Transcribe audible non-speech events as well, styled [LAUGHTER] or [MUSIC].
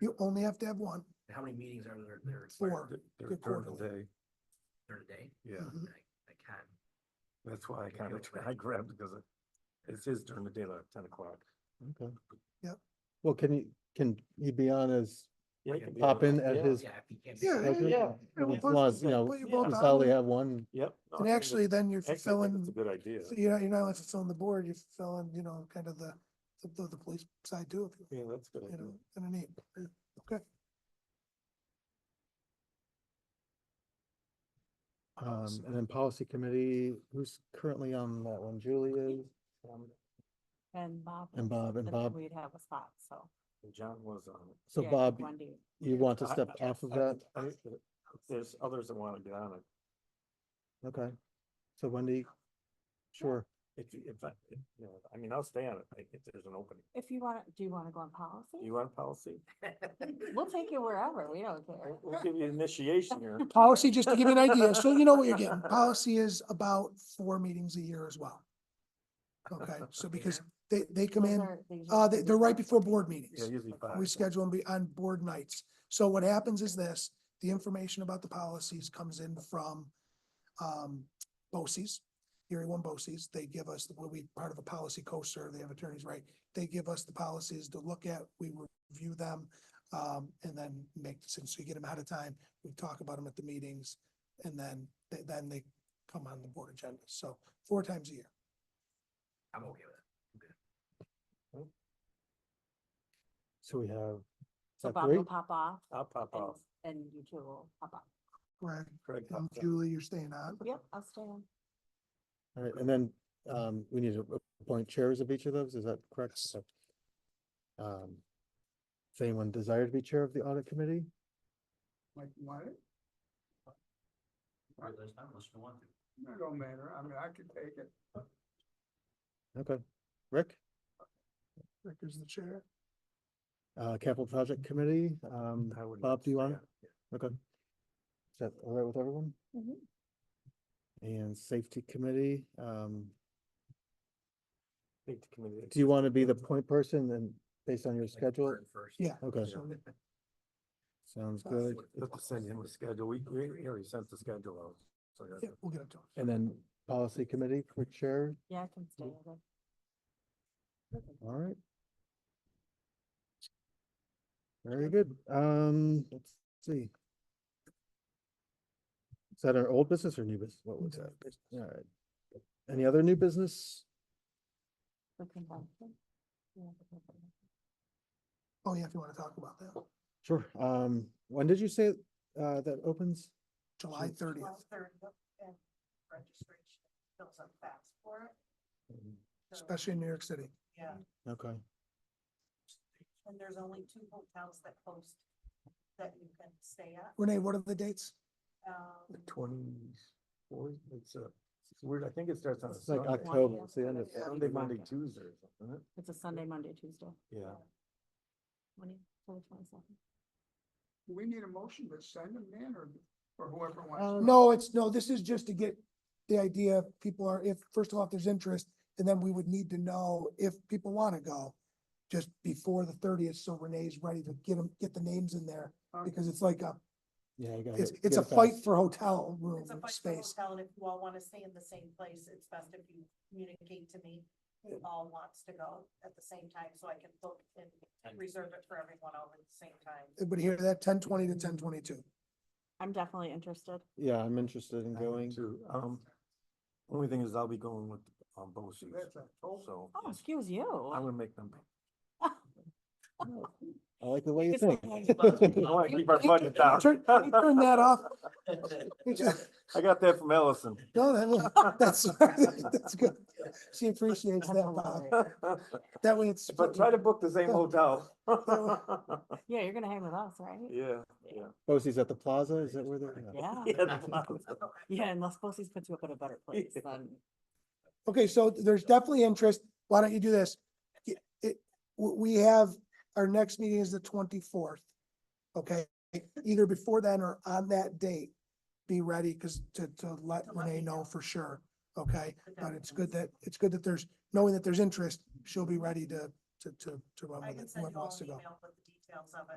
You only have to have one. How many meetings are there, there? Four. They're- They're Good during the quarterly. day. During the day? Yeah, Mhm. I- I can't. that's why I They kind feel of, free. I grabbed because it, it says during the day, like ten o'clock. Okay. Yep. Well, can you, can you be on as, Yeah, I you can can be do pop that. in at Yeah. his- Yeah, if you can. Yeah, like, yeah, yeah, yeah, as we'll long put- as, you know, put you yeah. both you on solely there. have one, Yep. no, And I think actually, it's- then you're actually, I think It's fulfilling, a good idea. so you're not, you're not only fulfilling the board, you're fulfilling, you know, kind of the, the- the, the police side too, if you- Yeah, that's a good. you idea. know, kind of neat. Okay, um, and then policy committee, who's currently on that one, Julie is, Um, And Bob. and Bob, and then Bob, We'd have a spot, so. and John was on it. so yeah, Bob, Wendy. you want to I- step I- off of Uh, I- that, I- There's others that want to get on it. okay? So Wendy, sure, If, you- if, I, if, you know, I mean, I'll stay on it like, if there's an opening. If you want, do you want to go on policy? You want policy? We'll take you wherever, we don't We'll- care. We'll give you initiation [LAUGHS] here. policy, just to give you an idea, so you know what you're [LAUGHS] getting, policy is about four meetings a year as well. Okay, so because they, they come Those in, are- these are uh, they, they're right different. before board meetings. Yeah, usually five. We schedule them be- on board nights. So what happens is this, the information about the policies comes in from um, BOCES, Erie One BOCES. They give us, we'll be part of a policy co-sur, they have attorneys, right? They give us the policies to look at, we review them, um, and then make, since we get them ahead of time, we talk about them at the meetings, and then, th- then they come on the board agenda. So four times a year. I'm okay with it. so we have, So that Bob will great? pop off I'll pop and, off. and you two will pop off. Correct. Craig And pops off. Julie, you're staying on. Yep, I'll stay on. all right, and then, um, we need to appoint chairs of each of those, is that correct? Yes. Okay. Um, does anyone desire to be chair of the audit committee? Like what? Or at least unless you want to. It don't matter. I mean, I could take it. Okay, Rick? Rick is the chair. Uh, capital project committee, um, I wouldn't Bob, do you want stay it? Okay. Is that all right with everyone? Mhm. And safety committee, um, I think the committee- do you want to be the point person and based on your Like, burn schedule? First. Yeah. Okay, Yeah. sounds Uh, good. Let's just send him a schedule. We, we we already sent the schedule out. So that's Yeah, it. we'll get it to him. And then policy committee for chair, Yeah, I can stay on. all right. Very good, um, let's see. Is that our old business or new business? What was that? All right. Any other new business? The convention. Yeah, the convention. Oh, yeah, if you want to talk about that. Sure. Um, when did you say, uh, that opens? July thirtieth. registration fills up fast for it. So, especially in New York City. Yeah, Okay, and there's only two hotels that host that you can stay at. Renee, what are the dates? The Um, twenty-four, it's a, it's weird. I think it starts on a it's like Sunday. October, it's the end of, Yeah. Sunday, Monday, Tuesday or something, isn't It's a Sunday, Monday, Tuesday, it? Yeah. twenty, twenty-seven. Do we need a motion to send them in or, or whoever Uh, wants? Um, No, it's, no, this is just to get the idea, if people are, if, first of all, if there's interest, and then we would need to know if people want to go just before the thirtieth, so Renee's ready to get them, get the names in there, to. Uh, because it's like a, yeah, you got it's, it's a fight for hotel room It's a fight for space. hotel, and if you all want to stay in the same place, it's best if you communicate to me who all wants to go at the same time, so I can book and And- reserve it for everyone all at the same time. Everybody hear that? Ten twenty to ten twenty-two. I'm definitely interested. Yeah, I'm interested in I am going. too. Um, only thing is I'll be going with, um, both shoes, That's October. so Oh, excuse you. I'm gonna make them. I like the way you It's like- think. I wanna keep our budget down. Turn, can you [LAUGHS] turn that off. I got that from Ellison. No, that, that's, [LAUGHS] that's good. She appreciates that, Bob. That way it's. But try to book the same hotel. [LAUGHS] Yeah, you're gonna hang with us, right? Yeah, yeah. Bosie's at the plaza, is that where they're? yeah. Yeah, Yeah, the plaza. yeah, unless Bosse's puts you up in a better place, Yeah. then Okay, so there's definitely interest. Why don't you do this? Y- It, w- we have, our next meeting is the twenty-fourth. Okay, either before then or on that date, be ready, because to, to let To let Renee me know know. for sure, okay? But But that it's depends. good that, it's good that there's, knowing that there's interest, she'll be ready to, to, to, to run I with can it, send whoever you all wants to an go. email with the details of it.